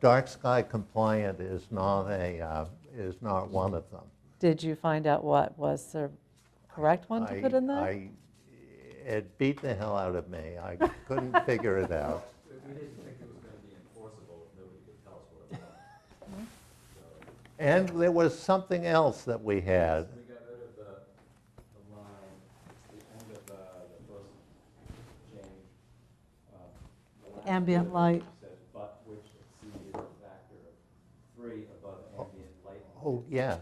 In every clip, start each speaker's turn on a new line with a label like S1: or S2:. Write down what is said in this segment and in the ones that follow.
S1: dark sky compliant is not a, uh, is not one of them.
S2: Did you find out what was the correct one to
S1: I-
S2: put in there?
S1: I- It beat the hell out of me. I couldn't figure it out.
S3: We didn't think it was gonna be enforceable, nobody could tell us what it was.
S4: Hmm?
S1: And there was something else that we had.
S3: We got rid of the, the line, it's the end of, uh, the first change. uh, the last
S4: Ambient
S3: bit
S4: light.
S3: Says, but which exceeded a factor of three above ambient light.
S1: Oh, yes.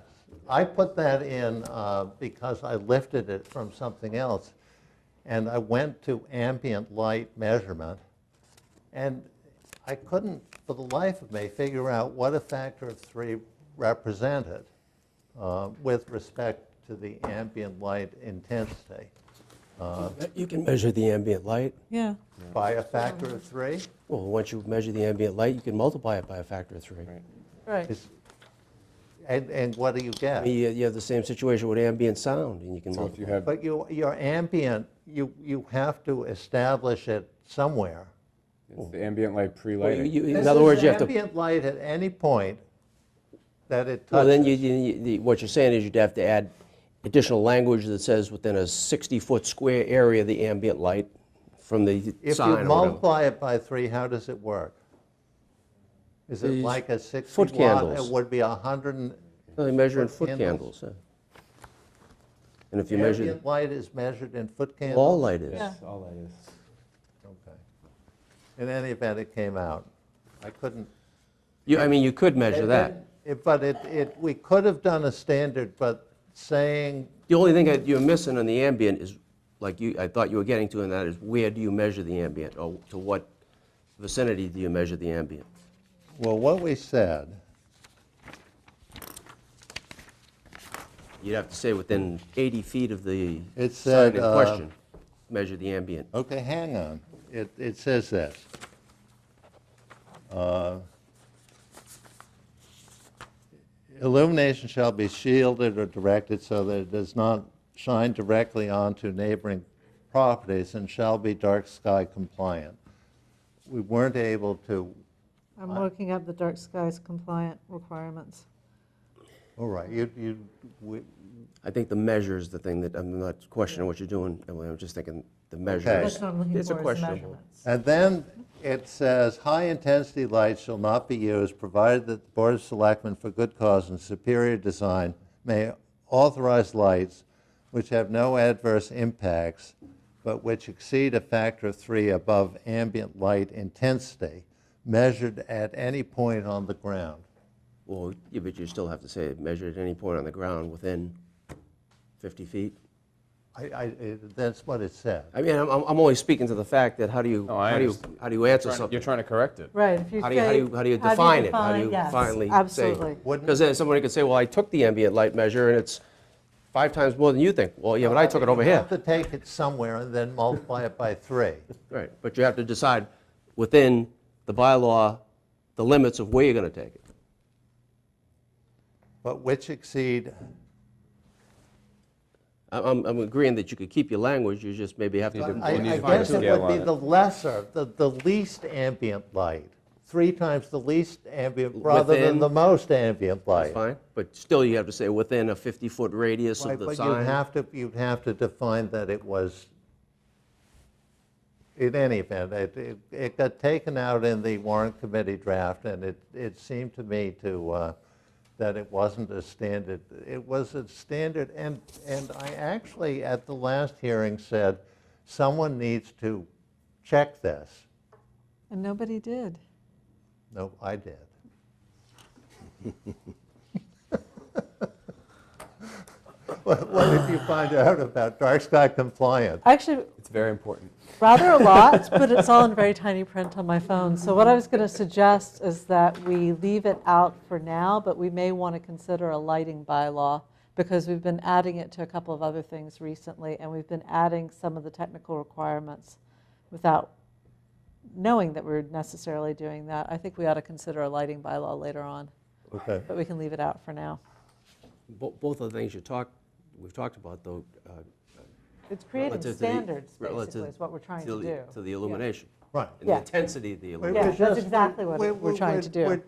S1: I put that in uh, because I lifted it from something else, and I went to ambient light measurement, and I couldn't, for the life of me, figure out what a factor of three represented uh, with respect to the ambient light intensity.
S5: You can measure the ambient light.
S4: Yeah,
S1: By a factor of three?
S5: Well, once you measure the ambient light, you can multiply it by a factor of three.
S2: Right,
S1: Is- And, and what do you
S5: I
S1: get?
S5: mean, you you have the same situation with ambient sound, and you can
S6: So if you
S5: multiply.
S6: have,
S1: But you, your ambient, you, you have to establish it somewhere.
S6: it's the ambient light
S5: Well, you-
S6: pre-lighting,
S5: you- In
S1: This
S5: other
S1: is
S5: words, you have to,
S1: Ambient light at any point that it
S5: well, then you,
S1: touches.
S5: you- you- the- what you're saying is you'd have to add additional language that says within a 60-foot square area, the ambient light from the
S1: If you
S5: sign or whatever.
S1: multiply it by three, how does it work? Is it
S5: These
S1: like a 60
S5: foot
S1: watt?
S5: candles.
S1: It would be 100, and-
S5: No, They measure in
S1: foot
S5: foot
S1: candles.
S5: candles. yeah. And if you measure,
S1: ambient light is measured in foot candles?
S5: all light is.
S4: yeah.
S6: all that is.
S1: Okay. In any event, it came out. I couldn't
S5: You, I mean, you could measure
S1: It-
S5: that.
S1: it- But it, it, we could have done a standard, but saying,
S5: The only thing that you're missing on the ambient is, like you, I thought you were getting to in that, is where do you measure the ambient, or to what vicinity do you measure the ambient?
S1: well, what we said,
S5: You'd have to say within 80 feet of the
S1: It
S5: site
S1: said,
S5: in
S1: uh,
S5: question, measure the ambient.
S1: okay, hang on, it, it says this. Uh, Illumination shall be shielded or directed so that it does not shine directly onto neighboring properties and shall be dark sky compliant. We weren't able to,
S4: I'm looking up the dark skies compliant requirements.
S1: all right, you, you, we-
S5: I think the measure is the thing that, I'm not questioning what you're doing, Emily, I'm just thinking the measure.
S1: Okay.
S5: is-
S4: That's what I'm looking
S5: it's a
S4: for, is
S5: questionable.
S4: measurements.
S1: And then it says, "High-intensity lights shall not be used, provided that the Board of Selectmen, for good cause and superior design, may authorize lights which have no adverse impacts, but which exceed a factor of three above ambient light intensity, measured at any point on the ground."
S5: Well, yeah, but you still have to say, measure at any point on the ground within 50 feet.
S1: I, I, it- that's what it said.
S5: I mean, I'm, I'm I'm only speaking to the fact that how do you,
S6: No, I
S5: how do you,
S6: understand.
S5: how do you answer
S6: Trying to-
S5: something?
S6: You're trying to correct it.
S4: Right, if you
S5: How do you, how do you,
S4: say-
S5: how do you define it? How do you
S4: yes,
S5: finally say?
S4: Absolutely.
S5: Because then somebody could say, well, I took the ambient light measure and it's five times more than you think. Well, yeah, but I took it over
S1: You
S5: here.
S1: have to take it somewhere and then multiply it by three.
S5: Right, but you have to decide within the bylaw, the limits of where you're gonna take it.
S1: But which exceed,
S5: I- I'm, I'm agreeing that you could keep your language, you just maybe have to.
S6: Need to-
S1: I
S6: We'll need
S1: I
S6: to find a
S1: guess it
S6: scale
S1: would be
S6: on it.
S1: the lesser, the, the least ambient light, three times the least ambient, rather than
S5: Within-
S1: the most ambient light.
S5: That's fine, but still you have to say within a 50-foot radius
S1: Right,
S5: of the
S1: But you'd
S5: sign.
S1: have to, you'd have to define that it was, in any event, it, it- it got taken out in the warrant committee draft, and it, it seemed to me to, uh, that it wasn't a standard, it was a standard, and, and I actually, at the last hearing, said, someone needs to check this.
S4: And nobody did.
S1: No, I did. What what did you find out about dark sky compliant?
S4: Actually,
S6: It's very important.
S4: rather a lot, but it's all in very tiny print on my phone. So what I was going to suggest is that we leave it out for now, but we may want to consider a lighting bylaw because we've been adding it to a couple of other things recently, and we've been adding some of the technical requirements without knowing that we're necessarily doing that. I think we ought to consider a lighting bylaw later on,
S1: Okay.
S4: but we can leave it out for now.
S5: Bo- Both of the things you talked, we've talked about though. uh,
S4: It's creating
S5: relative to the-
S4: standards, basically,
S5: relative
S4: is what we're trying
S5: to
S4: to
S5: the-
S4: do.
S5: To the illumination.
S1: Right.
S5: And the
S4: Yeah.
S5: intensity of the illumination.
S4: that's exactly what we're trying to do.
S1: We're